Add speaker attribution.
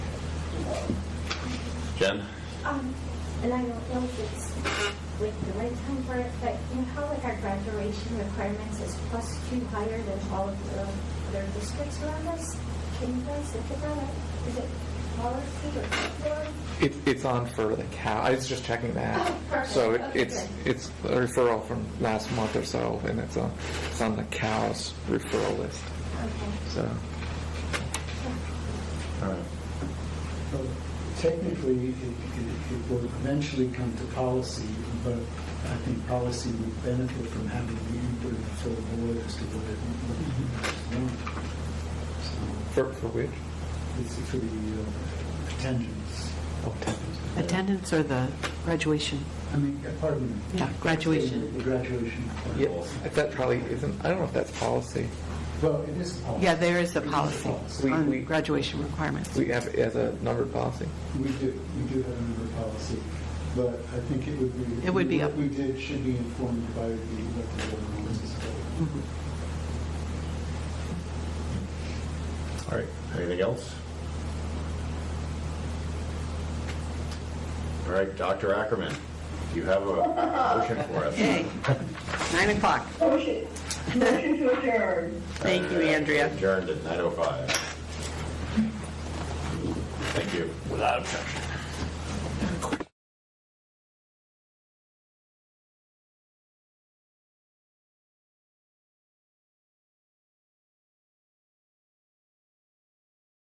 Speaker 1: Jen?
Speaker 2: Um, and I don't know if it's with the right time for it, but you know how like our graduation requirements is plus two higher than all of the other districts around us? Can you guys look at that? Is it policy or curriculum?
Speaker 3: It, it's on for the cow, I was just checking
Speaker 2: Oh,
Speaker 3: that.
Speaker 2: perfect.
Speaker 3: So it-
Speaker 2: Okay,
Speaker 3: it's, it's a referral from last month or so, and it's on, it's on the cows referral list,
Speaker 2: Okay.
Speaker 3: so.
Speaker 4: So Technically, it, it it will eventually come to policy, but I think policy would benefit from having the input of the full board as to what it, what it wants.
Speaker 5: Mm-hmm.
Speaker 4: So
Speaker 3: For, for which?
Speaker 4: This is for the uh, attendance.
Speaker 3: Oh, ten.
Speaker 5: Attendance or the graduation?
Speaker 4: I mean, uh, pardon me.
Speaker 5: Yeah, graduation.
Speaker 4: The graduation. part.
Speaker 3: Yeah, that probably isn't, I don't know if that's policy.
Speaker 4: Well, it is policy.
Speaker 5: Yeah, there is a policy
Speaker 3: We- we-
Speaker 5: on graduation requirements.
Speaker 3: We have, it as a numbered policy.
Speaker 4: We do, we do have another policy, but I think it would be.
Speaker 5: It would be up-
Speaker 4: What we did should be informed by the, what the board wants us to do.
Speaker 5: Mhm.
Speaker 1: All right, anything else? All right, Dr. Ackerman, you have a motion for us.
Speaker 6: Okay, nine o'clock.
Speaker 7: Motion, motion to adjourn.
Speaker 6: Thank you, Andrea.
Speaker 1: oh Adjourned at 9:05. Thank you. Without objection.